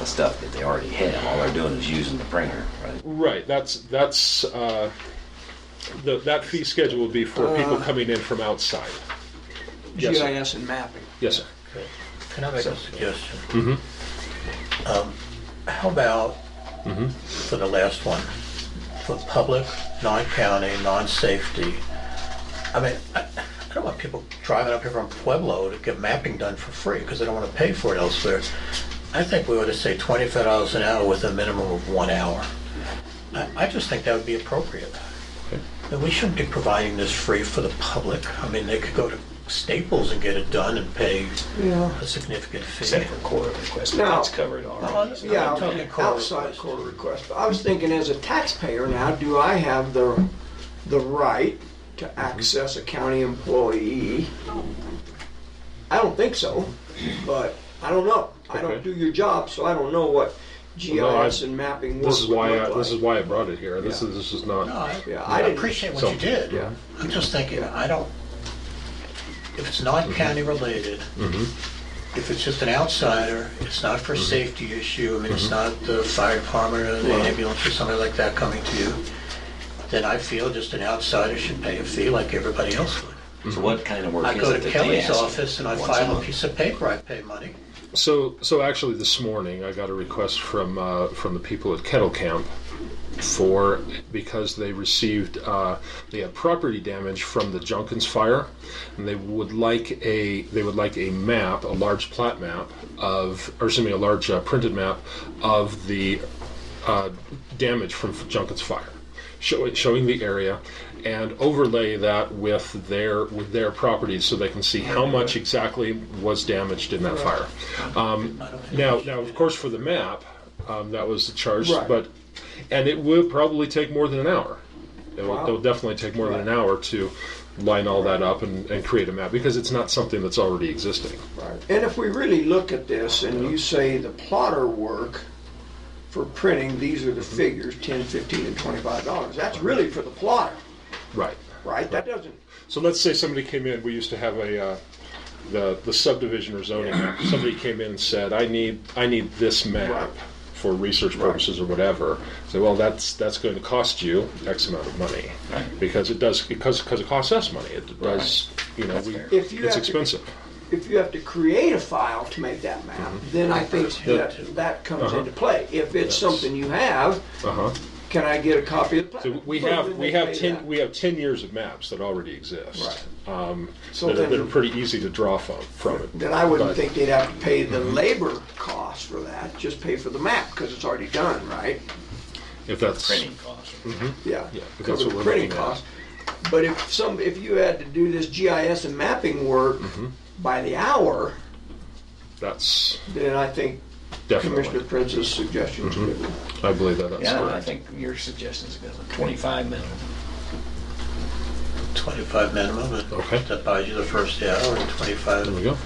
of stuff that they already have. All they're doing is using the printer, right? Right, that's, that's, uh, the, that fee schedule would be for people Uh. coming in from outside. Yes, sir. GIS and mapping. Yes, sir. Can I make a suggestion? Um, How about, for the last one, for public, non-county, non-safety, I mean, I I don't want people driving up here from Pueblo to get mapping done for free because they don't want to pay for it elsewhere. I think we ought to say twenty-five dollars an hour with a minimum of one hour. I, I just think that would be appropriate. And we shouldn't be providing this free for the public. I mean, they could go to Staples and get it done and pay a significant fee. Except for core request, but No. that's covered already. Well, Yeah, I'm talking core outside request. court request. But I was thinking as a taxpayer now, do I have the, the right Mm-hmm. to access a county employee? I don't think so, but I don't know. I don't Okay. do your job, so I don't know what no, I- GIS and mapping work This is would why, look I- this like. is why I brought it here. This Yeah. is, this is not. No, I, Yeah, I I didn't- appreciate what So- you did. Yeah. I'm just thinking, I don't, if it's Mm-hmm. not county related, if it's just an outsider, it's not Mm-hmm. for a safety issue, I mean, it's not the fire department or the ambulance or somebody like that coming to you, then I feel just an outsider should pay a fee like everybody else would. So what kind of work I is go it to that they Kelly's ask? office and I once file a month? piece of paper, I pay money. So, so actually, this morning I got a request from uh, from the people at Kettle Camp for because they received uh, they had property damage from the Junkins fire, and they would like a they would like a map, a large plat map of, or excuse me, a large uh, printed map of the uh, damage from Junkins fire, showing showing the area, and overlay that with their with their properties so they can see how much exactly was damaged in that fire. Um, now, now of course for the map, um, that was the charge, Right. but and it will probably take more than an hour. It will, Wow. it'll definitely take more than an hour to line all that up and, and create a map because it's not something that's already existing. Right. And if we really look at this and you say the plotter work for printing, these are the figures, 10, 15, and 25 dollars. That's really for the plotter, Right. right? That doesn't, So let's say somebody came in. We used to have a uh, the the subdivision or zoning. map. Somebody came in and said, "I need I need this map Right. for research purposes or whatever." So well, that's that's going to cost you X amount of money because it does because because it costs us money. It does you know we, fair. If you it's have to- expensive. if you have to create a file to make that map, Mm-hmm. then I think that, that comes Uh-huh. into play. If it's something you have, Uh huh. can I get a copy of the plat? So we Well, have Uh-huh. then we they have pay ten that. we have ten years of maps that already exist. Um, So that, are, that are then, pretty easy to draw from from it. then I wouldn't but- think they'd have to pay Mm-hmm. the labor cost for that, just pay for the map, because it's already done, right? If that's Printing costs. Yeah, Yeah, but that's cover what the we're printing looking at. costs. But if some, if you had to do this GIS and mapping work Mm-hmm. by the hour, that's then I think definitely Mm-hmm. Commissioner Prince's suggestion is good. I believe that that's Yeah, I correct. think your suggestion's good, twenty-five minimum. Twenty-five minimum, Okay. and that buys you the first hour and twenty-five There we go.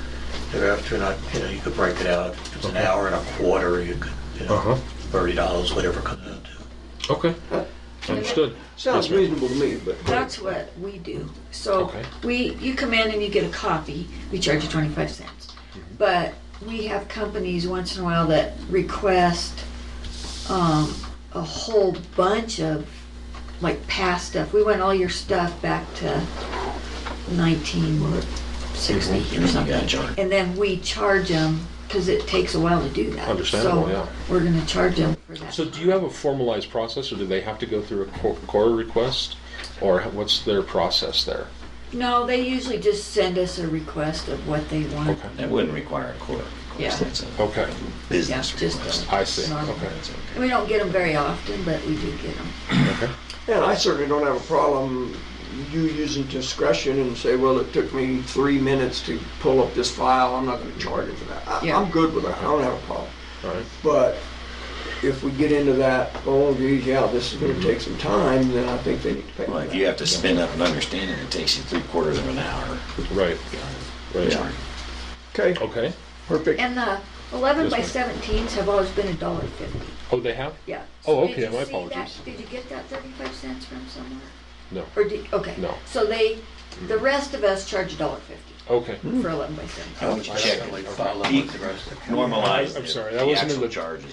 thereafter, and I, you know, you could break it out, if it's an hour and a quarter, you could, you Uh-huh. know, thirty dollars, whatever it comes out to. Okay. Understood. Sounds Yes, ma'am. reasonable to me, but. That's what we do. So Okay. we, you come in and you get a copy, we charge you twenty-five cents. Mm-hmm. But we have companies once in a while that request, um, a whole bunch of, like, past stuff. We want all your stuff back to nineteen sixty Mm-hmm. or You got something. a chart. And then we charge them, cause it takes a while to do that. Understandable, So yeah. We're gonna charge them for that. So do you have a formalized process, or do they have to go through a co- core request, or what's their process there? No, they usually just send us a request of what they want. Okay. That wouldn't require a court. Yeah. That's a Okay. business Yeah, just- uh, request. I see. Normal. Okay. That's okay. And we don't get them very often, but we do get them. And I certainly don't have a problem you using discretion and say, well, it took me three minutes to pull up this file, I'm not gonna charge you for that. I- Yeah. I'm good with that, I don't have a problem. All right. But if we get into that, oh geez, yeah, this is gonna Mm-hmm. take some time, then I think they need to pay. for Well, if that. you have to spin up an understanding, it takes you three quarters of an hour. Right. Right. Sorry. Okay, Okay. perfect. And the eleven by Yes, seventeens have always been a dollar fifty, Oh, they have? yeah. Oh, Did okay, you my see that? apologies. Did you get that thirty-five cents from somewhere? No. Or did, okay. No. So they, the rest of us charge a dollar fifty Okay. for eleven by seventeen. I want you to check Definitely it. follow up with the rest of the. Normalize. I'm the- sorry, that the wasn't in actual the- charges.